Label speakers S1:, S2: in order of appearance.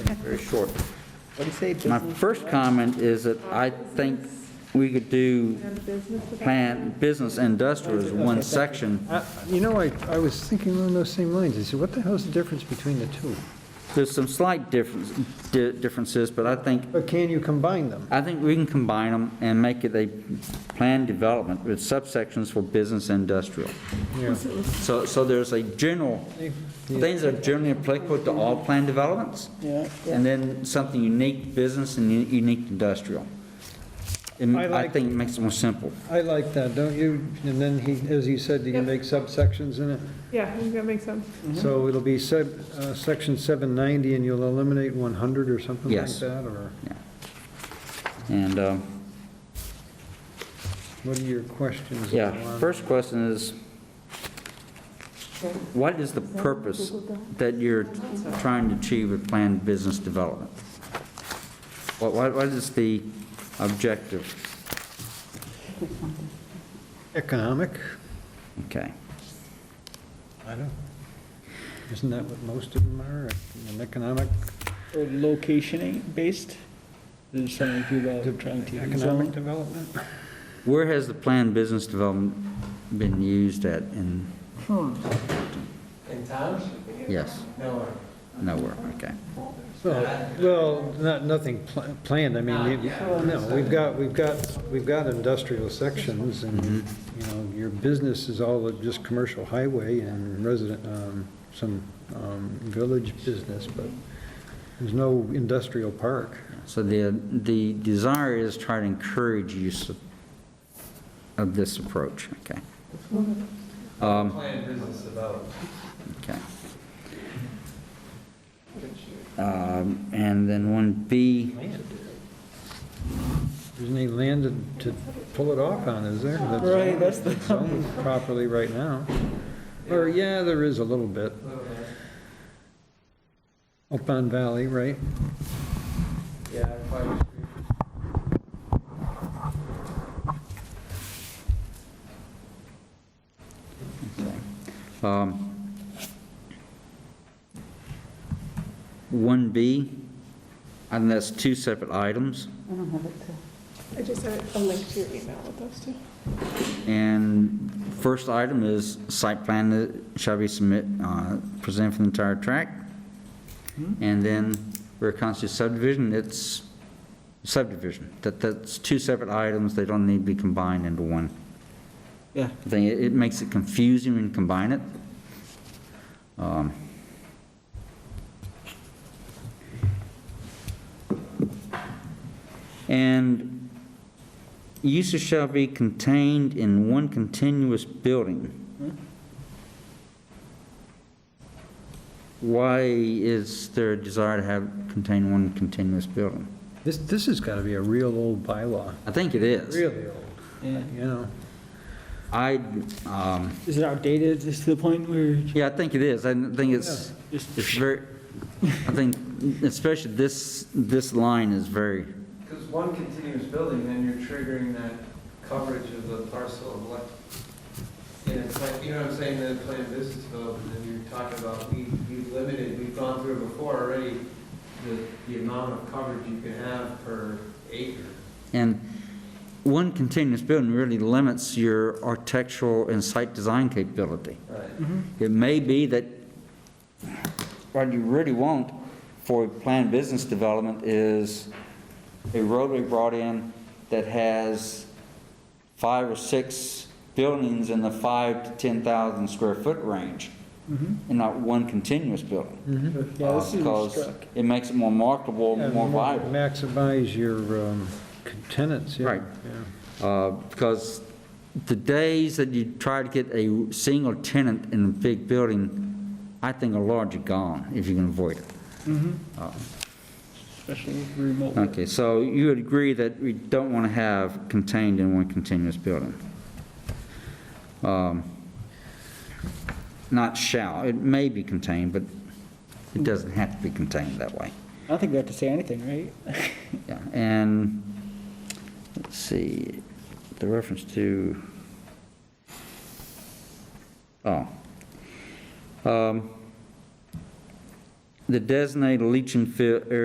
S1: very short.
S2: What do you say,
S1: My
S2: business?
S1: first comment is that I think we could do plan, business industrial as one section.
S3: Uh, You know, I, I was thinking along those same lines. I said, what the hell's the difference between the two?
S1: There's some slight difference, di- differences, but I think,
S3: But can you combine them?
S1: I think we can combine them and make it a planned development with subsections for business industrial.
S3: Yeah.
S1: So, so there's a general, things that are generally applicable to all planned developments,
S2: Yeah,
S1: and then something unique business and u- unique industrial. And
S3: I
S1: I
S3: like-
S1: think it makes it more simple.
S3: I like that, don't you? And then he, as you said, you can make subsections in it.
S4: Yeah, that makes sense.
S2: Mm-hmm.
S3: So it'll be sub, uh, section 790, and you'll eliminate 100 or something like
S1: Yes.
S3: that, or
S1: And, um,
S3: what are your questions?
S1: Yeah,
S3: on-
S1: first question is, what is the purpose that you're trying to achieve with planned business development? What, what what is the objective?
S3: Economic?
S1: Okay,
S3: I don't. Isn't that what most of them are, an economic?
S2: or location based, there's something to about trying to.
S3: Economic development?
S1: where has the planned business development been used at in,
S5: In town?
S1: yes,
S5: No.
S1: nowhere, okay.
S3: Well, well, not, nothing pl- planned, I mean, you- no, we've got, we've got, we've got industrial sections, and, you know, your business is all of just commercial highway and resident, um, some um, village business, but there's no industrial park.
S1: So the, the desire is try to encourage use of, of this approach, okay, Um,
S5: Planned Um, business development.
S1: okay. Um, And then one B,
S3: There's any land to to pull it off on, is there? That's-
S2: Right, that's the-
S3: it's owned properly right now. Or, yeah, there is a little bit. Up on Valley, right?
S5: Yeah, I probably would agree.
S1: Um, 1B, and that's two separate items,
S4: I just had a link to your email with those two.
S1: and first item is site plan that shall be submit, uh, presented for the entire tract, and then where it constitutes subdivision, it's subdivision. That, that's two separate items, they don't need to be combined into one.
S2: Yeah,
S1: I think it it makes it confusing when you combine it. Um, And uses shall be contained in one continuous building. Why is there a desire to have, contain one continuous building?
S3: This, this has got to be a real old bylaw.
S1: I think it is.
S3: Really old,
S2: yeah.
S3: you know.
S1: I, um,
S2: Is it outdated, is to the point where,
S1: Yeah, I think it is. I think it's, it's very, I think especially this, this line is very,
S5: Because one continuous building, then you're triggering that coverage of the parcel of land. And it's like, you know what I'm saying, the planned business development, and you're talking about, we, we limited, we've gone through it before already, the, the amount of coverage you can have per acre.
S1: and one continuous building really limits your architectural and site design capability.
S5: Right.
S1: It may be that what you really want for planned business development is a roadway brought in that has five or six buildings in the five to 10,000 square foot range, and not one continuous building.
S2: yeah, this
S1: Uh,
S2: is
S1: Because
S2: struck.
S1: it makes it more marketable, more viable.
S3: Maximize your um, tenants, yeah.
S1: Right.
S3: yeah.
S1: Uh, Because the days that you try to get a single tenant in a big building, I think are largely gone, if you can avoid it.
S2: especially with remote work.
S1: Okay, so you would agree that we don't want to have contained in one continuous building? Um, Not shall, it may be contained, but it doesn't have to be contained that way.
S2: I don't think we have to say anything, right?
S1: Yeah, and, let's see, the reference to, oh. Um, The designated leaching field area